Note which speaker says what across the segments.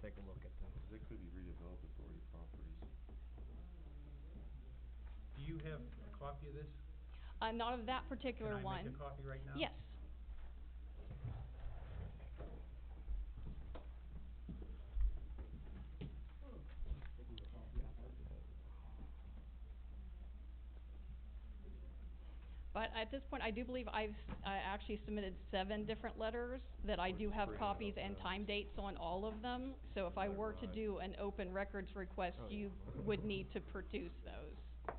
Speaker 1: take a look at them.
Speaker 2: They could be redeveloped authority properties.
Speaker 3: Do you have a copy of this?
Speaker 4: Uh, not of that particular
Speaker 3: Can I make
Speaker 4: one.
Speaker 3: a copy right now?
Speaker 4: Yes. But at this point, I do believe I've, I actually submitted seven different letters that I do have
Speaker 2: Bring it up
Speaker 4: copies and
Speaker 2: now.
Speaker 4: time dates on all of them. So if I
Speaker 2: Is that
Speaker 4: were to
Speaker 2: right?
Speaker 4: do an open records request,
Speaker 1: Oh, yeah.
Speaker 4: you would need to produce those.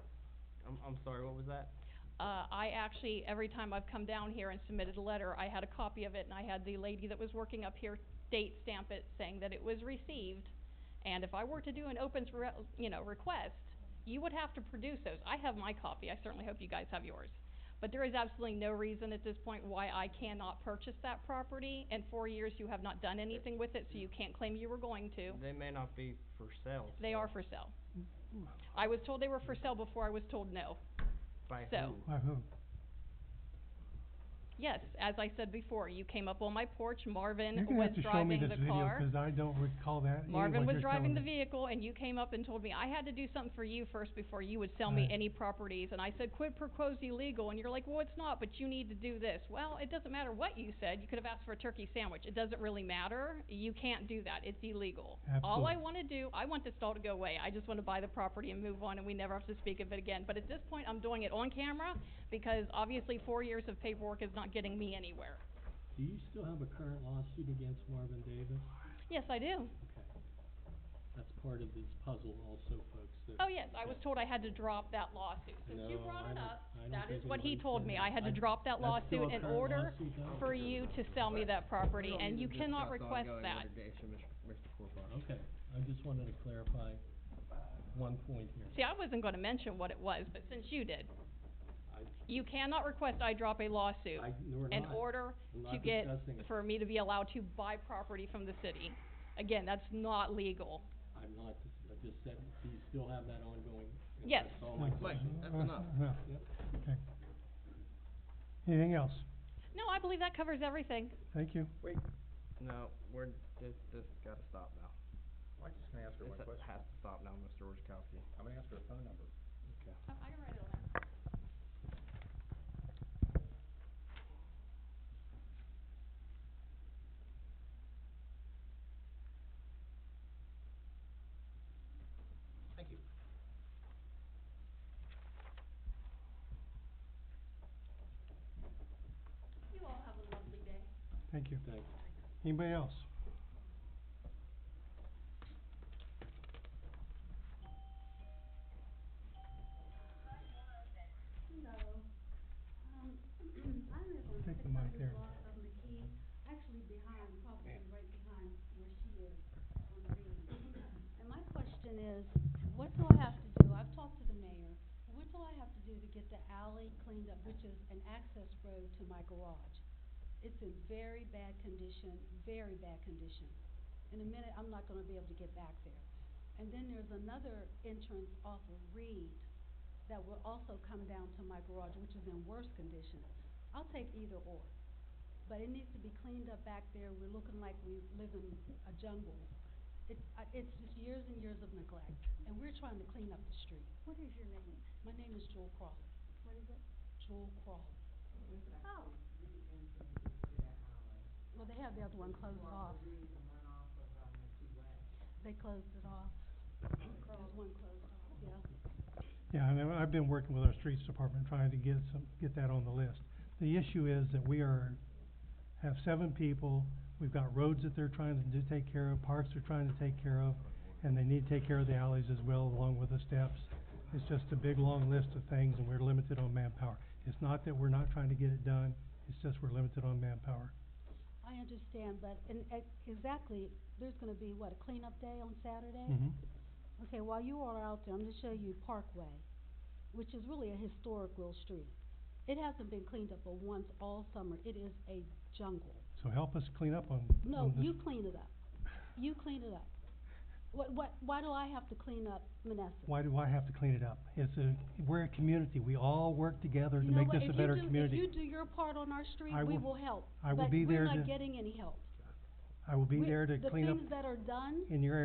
Speaker 1: I'm, I'm sorry, what was that?
Speaker 4: Uh, I actually, every time I've come down here and submitted a letter, I had a copy of it, and I had the lady that was working up here date stamp it, saying that it was received. And if I were to do an opens, re- you know, request, you would have to produce those. I have my copy, I certainly hope you guys have yours. But there is absolutely no reason at this point why I cannot purchase that property. In four years, you have not done anything with it, so you can't claim you were going to.
Speaker 1: They may not be for sale.
Speaker 4: They
Speaker 1: so-
Speaker 4: are for sale. I was told they were for sale before I was told no.
Speaker 1: By
Speaker 4: so.
Speaker 1: who?
Speaker 5: By who?
Speaker 4: Yes, as I said before, you came up on my porch,
Speaker 5: You're
Speaker 4: Marvin
Speaker 5: gonna
Speaker 4: was
Speaker 5: have to show me
Speaker 4: driving
Speaker 5: this
Speaker 4: the
Speaker 5: video,
Speaker 4: car.
Speaker 5: 'cause I don't recall that. any
Speaker 4: Marvin
Speaker 5: what
Speaker 4: was
Speaker 5: you're
Speaker 4: driving
Speaker 5: telling
Speaker 4: the
Speaker 5: me.
Speaker 4: vehicle and you came up and told me, I had to do something for you first before you would sell me
Speaker 5: Right.
Speaker 4: any properties. And I said, quid pro quo's illegal. And you're like, well, it's not, but you need to do this. Well, it doesn't matter what you said. You could have asked for a turkey sandwich. It doesn't really matter. You can't do that. It's illegal. All I
Speaker 5: Absolutely.
Speaker 4: want to do, I want this all to go away. I just want to buy the property and move on and we never have to speak of it again. But at this point, I'm doing it on camera because obviously four years of paperwork is not getting me anywhere.
Speaker 6: Do you still have a current lawsuit against Marvin Davis?
Speaker 4: Yes, I do.
Speaker 6: Okay. That's part of this puzzle also, folks, that...
Speaker 4: Oh, yes, I was told I had to drop that lawsuit. Since you
Speaker 6: No,
Speaker 4: brought it
Speaker 6: I don't-
Speaker 4: up,
Speaker 6: I don't
Speaker 4: that is
Speaker 6: think
Speaker 4: what he
Speaker 6: anybody
Speaker 4: told
Speaker 6: said
Speaker 4: me.
Speaker 6: that.
Speaker 4: I had to
Speaker 6: I-
Speaker 4: drop that
Speaker 6: that's still
Speaker 4: lawsuit
Speaker 6: a
Speaker 4: in
Speaker 6: current
Speaker 4: order
Speaker 6: lawsuit, though?
Speaker 4: for you to sell me that property, and you cannot request that.
Speaker 6: Okay, I just wanted to clarify one point here.
Speaker 4: See, I wasn't gonna mention what it was, but since you did,
Speaker 6: I-
Speaker 4: you cannot request I drop a lawsuit
Speaker 6: I- no, we're
Speaker 4: in
Speaker 6: not.
Speaker 4: order
Speaker 6: We're
Speaker 4: to
Speaker 6: not
Speaker 4: get,
Speaker 6: discussing it.
Speaker 4: for me to be allowed to buy property from the city. Again, that's not legal.
Speaker 6: I'm not, I just said, do you still have that ongoing? And
Speaker 4: Yes.
Speaker 6: That's all my
Speaker 5: Mike,
Speaker 6: question.
Speaker 5: that's enough. No,
Speaker 6: Yep.
Speaker 5: okay. Anything else?
Speaker 4: No, I believe that covers everything.
Speaker 5: Thank you.
Speaker 1: Wait, no, we're, this, this gotta stop now.
Speaker 3: Well, I'm just gonna ask her
Speaker 1: This
Speaker 3: one question.
Speaker 1: has to stop now, Mr. Orzakowski.
Speaker 3: I'm gonna ask her a phone number.
Speaker 1: Okay.
Speaker 4: I I can write it on there.
Speaker 3: Thank you.
Speaker 4: You all have a lovely day.
Speaker 5: Thank you.
Speaker 6: Thanks.
Speaker 5: Anybody else?
Speaker 7: Hello. Um, I live on
Speaker 5: Take
Speaker 7: six
Speaker 5: the mic there.
Speaker 7: hundred block of McKee, actually behind, probably right behind where she is on Reed. And my question is, what do I have to do, I've talked to the mayor, what do I have to do to get the alley cleaned up, which is an access road to my garage? It's in very bad condition, very bad condition. In a minute, I'm not gonna be able to get back there. And then there's another entrance off of Reed that will also come down to my garage, which is in worse condition. I'll take either or, but it needs to be cleaned up back there, we're looking like we live in a jungle. It, I it's just years and years of neglect, and we're trying to clean up the street.
Speaker 8: What is your name?
Speaker 7: My name is Joel Crawley,
Speaker 8: What is it?
Speaker 7: Joel Crawley.
Speaker 8: Oh,
Speaker 7: Well, they have the other one closed off, they closed it off. There's one closed off, yeah.
Speaker 5: Yeah, I know, I've been working with our streets department trying to get some, get that on the list. The issue is that we are, have seven people, we've got roads that they're trying to do, take care of, parks they're trying to take care of, and they need to take care of the alleys as well along with the steps. It's just a big, long list of things and we're limited on manpower. It's not that we're not trying to get it done, it's just we're limited on manpower.
Speaker 7: I understand, but, and, ex- exactly, there's gonna be, what, a cleanup day on Saturday?
Speaker 5: Mhm.
Speaker 7: Okay, while you all are out there, I'm gonna show you Parkway, which is really a historic little street. It hasn't been cleaned up but once all summer, it is a jungle.
Speaker 5: So help us clean up on,
Speaker 7: No,
Speaker 5: on this.
Speaker 7: you clean it up, you clean it up. What, what, why do I have to clean up Menneson?
Speaker 5: Why do I have to clean it up? It's a, we're a community, we all work together to
Speaker 7: You know
Speaker 5: make
Speaker 7: what,
Speaker 5: this a
Speaker 7: if you
Speaker 5: better
Speaker 7: do-
Speaker 5: community.
Speaker 7: If you do your part on our street,
Speaker 5: I
Speaker 7: we
Speaker 5: will-
Speaker 7: will help.
Speaker 5: I will be there
Speaker 7: But we're
Speaker 5: to-
Speaker 7: not getting any help.
Speaker 5: I will be
Speaker 7: We-
Speaker 5: there to clean up
Speaker 7: The things that are done
Speaker 5: in your